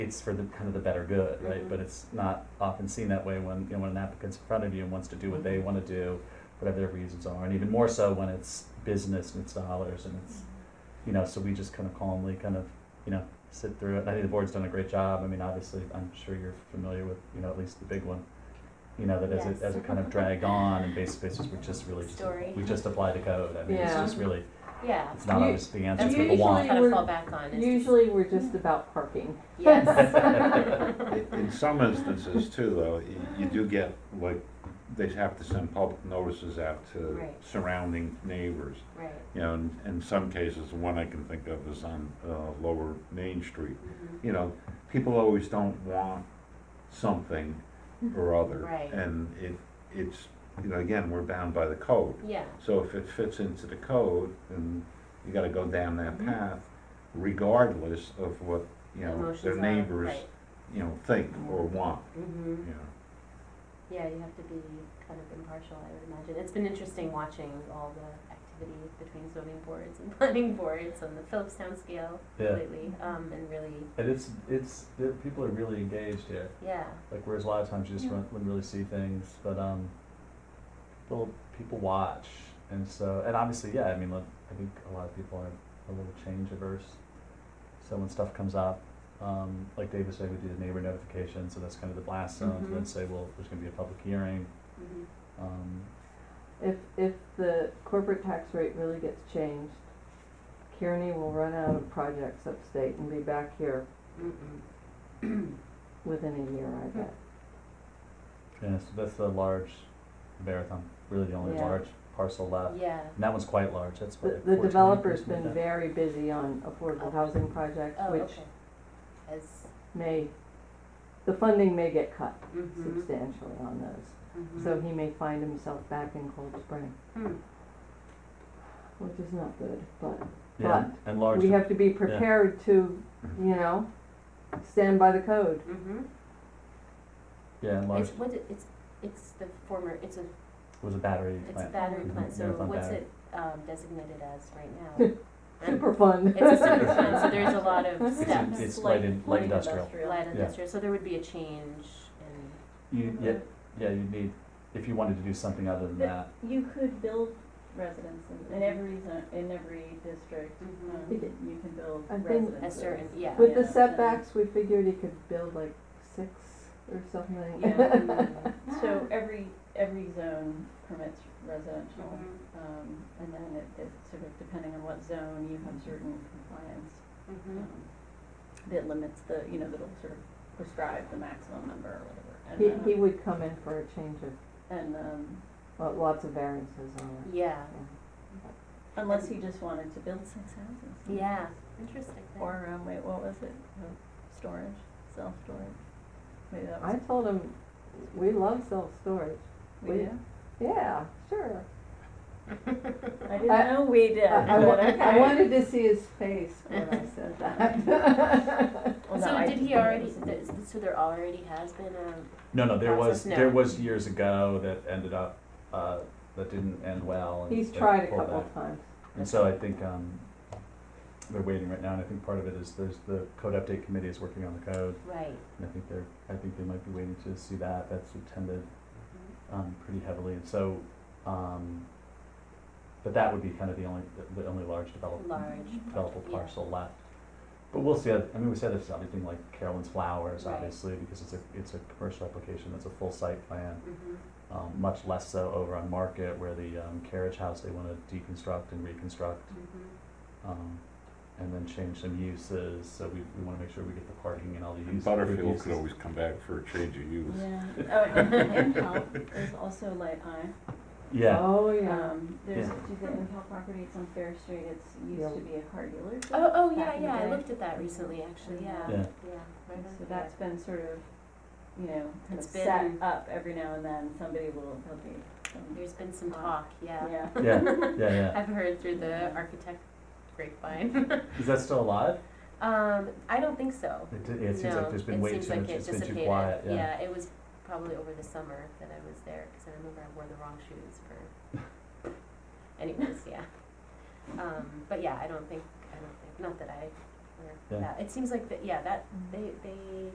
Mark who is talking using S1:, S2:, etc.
S1: it's for the kind of the better good, right?
S2: Mhm.
S1: But it's not often seen that way when, you know, when an applicant's in front of you and wants to do what they
S2: Mhm.
S1: want to do, whatever their reasons are, and even more so when it's business and it's dollars and it's,
S2: Mm-hmm.
S1: you know, so we just kind of calmly kind of, you know, sit through it. I think the board's done a great job. I mean, obviously, I'm sure you're familiar with, you know, at least the big one. You know, that as
S2: Yes.
S1: it, as it kind of dragged on and basically it's just, we just really just,
S2: Story.
S1: we just apply the code. I mean, it's
S3: Yeah.
S1: just really,
S2: Yeah.
S1: it's not
S3: You-
S1: always the answer,
S2: That's
S1: it's
S2: what
S1: what
S2: we
S1: the
S3: usually-
S1: want.
S2: kind of
S3: we're-
S2: fall back on. Is
S3: Usually, we're just about parking.
S2: Yes.
S4: In- In some instances too, though, y- you do get, like, they have to send public notices out to
S2: Right.
S4: surrounding neighbors.
S2: right.
S4: You know, in, in some cases, the one I can think of is on, uh, Lower Main Street.
S2: Mhm.
S4: You know, people always don't want something
S2: Mm-hmm.
S4: or other.
S2: Right.
S4: And it, it's, you know, again, we're bound by the code.
S2: Yeah.
S4: So if it fits into the code, then you gotta go down that
S2: Mhm.
S4: path regardless of what, you know,
S2: Emotions
S4: their
S2: are-
S4: neighbors,
S2: Right.
S4: you know, think or want,
S2: hmm
S4: you know.
S2: Yeah, you have to be kind of impartial, I would imagine. It's been interesting watching all the activity between zoning boards and planning boards on the Phillips Town scale
S1: Yeah.
S2: lately, um, and really,
S1: And it's, it's, the people are really engaged here.
S2: yeah,
S1: Like whereas a lot of times you just
S2: Yeah.
S1: run, wouldn't really see things, but um, people people watch, and so and obviously yeah, I mean look, I think a lot of people are a little change averse, so when stuff comes up, um, like David said, we do the neighbor notification, so that's kind of the blast zone,
S3: Mm-hmm.
S1: and then
S2: Mhm.
S1: say well there's going to be a public hearing,
S2: mhm,
S1: um,
S3: If, if the corporate tax rate really gets changed, Kearney will run out of projects upstate and be back here
S2: mm-mm.
S3: within a year, I bet.
S1: yeah, so that's the large marathon, really the only
S3: Yeah.
S1: large parcel left,
S2: yeah,
S1: and that one's quite large. That's
S3: The,
S1: what
S3: the developer's been very busy on affordable housing projects,
S2: oh,
S3: which
S2: okay. As,
S3: may, the funding may get cut
S2: mhm,
S3: substantially on those.
S2: mhm.
S3: So he may find himself back in Cold Spring,
S2: Hmm,
S3: which is not good, but
S1: yeah, and large.
S3: we have to be prepared to, you know, stand by the code.
S2: mhm.
S1: yeah, and large
S2: It's, what, it- it's, it's the former, it's a,
S1: was a battery
S2: it's a
S1: plant.
S2: battery
S3: Mhm.
S2: plant, so
S1: Marathon
S2: what's
S1: mm-hmm, battery.
S2: it, um, designated as right now? Right?
S3: Super fun.
S2: It's a super fun, so there's a lot of
S1: It's in-
S2: steps.
S1: It's light in, light industrial.
S2: Light
S1: Yeah.
S2: industrial, so there would be a change in,
S1: You, yeah, yeah, you need, if you wanted to do something other than that,
S5: You could buld residence in, in every zone, in every district, um,
S3: Mhm.
S2: Mm-hmm.
S5: you can build
S3: I think-
S5: residences.
S2: a certain, yeah.
S3: With the
S5: Yeah.
S3: setbacks, we figured he could build like six or something.
S5: Yeah. Mm-hmm.
S2: Mhm.
S5: So every, every zone permits residential,
S2: Mhm.
S5: um, and then it, it sort of depending on what zone, you have certain compliance,
S2: Mhm.
S5: um, that limits the, you know, that'll sort of prescribe the maximum number or whatever.
S3: He,
S5: And,
S3: he
S5: um,
S3: would come in for a change of,
S5: And, um,
S3: well, lots of variances on it.
S2: Yeah,
S5: unless he just wanted to build six houses.
S2: yeah, interesting. thing.
S5: Or, um, wait, what was it? Um, Storage, self-storage? Maybe that was.
S3: I told him, we love self-storage.
S5: We do?
S3: Yeah, sure.
S2: Uh,
S5: I didn't
S3: I-
S5: know we did.
S3: I, I wa-
S5: but
S3: I
S5: okay.
S3: wanted to see his face when I said that.
S5: Well, no,
S2: So
S5: I
S2: did
S5: just
S2: he
S5: thought it
S2: already,
S5: was-
S2: th- so there already has been a,
S1: no, no, there was,
S2: Process now.
S1: there was years ago that ended up, uh, that didn't end well. and
S3: He's
S1: they
S3: tried a
S1: pulled
S3: couple
S1: back.
S3: of times.
S1: And so I think, um, they're waiting right now, and I think part of it is there's, the code update committee is working on the code,
S2: right,
S1: and I think they're, I think they might be waiting to see that, that's attended, um, pretty heavily, and so, um, but that would be kind of the only, the- the only large development.
S2: large.
S1: developer
S2: Yeah.
S1: parcel left. But we'll see, I I mean, we said this, everything like Carolyn's Flowers,
S2: Right.
S1: obviously, because it's a, it's a commercial application, that's a full site plan.
S2: Mhm.
S1: Um, much less so over on Market where the, um, carriage house, they wanna deconstruct and reconstruct,
S2: Mhm.
S1: um, and then change some uses, so we, we wanna make sure we get the parking and all the uses.
S4: Butterfield could always come back for a change of use.
S5: Yeah, oh, and, and Impel is also light I.
S1: Yeah,
S3: Oh, yeah.
S5: Um, there's,
S1: Yeah.
S5: do the Impel property, it's on Fair Street, it's,
S3: Yeah.
S5: used to be a car dealership.
S2: Oh, oh, yeah,
S5: back in the
S2: yeah, I
S5: day.
S2: looked at that recently, actually, yeah, yeah,
S1: Yeah.
S2: right
S5: And
S2: on
S5: So
S2: here.
S5: that's been sort of, you know, kind of
S2: It's
S5: set
S2: been-
S5: up every now and then, somebody will, there'll be some,
S2: There's been some talk, yeah.
S5: Um, yeah.
S1: yeah, yeah, yeah.
S2: I've heard through the architect grapevine.
S1: Is that still alive?
S2: Um, I don't think so.
S1: It, di- it seems
S2: no,
S1: like there's been way
S2: seems
S1: too
S2: like
S1: much,
S2: it
S1: it's been too
S2: dissipated.
S1: quiet, yeah.
S2: it was probably over the summer that I was there because I remember I wore the wrong shoes for. Anyways, yeah. Um, but yeah, I don't think I don't think not that I or
S1: Yeah.
S2: that. It seems like that, yeah, that, they, they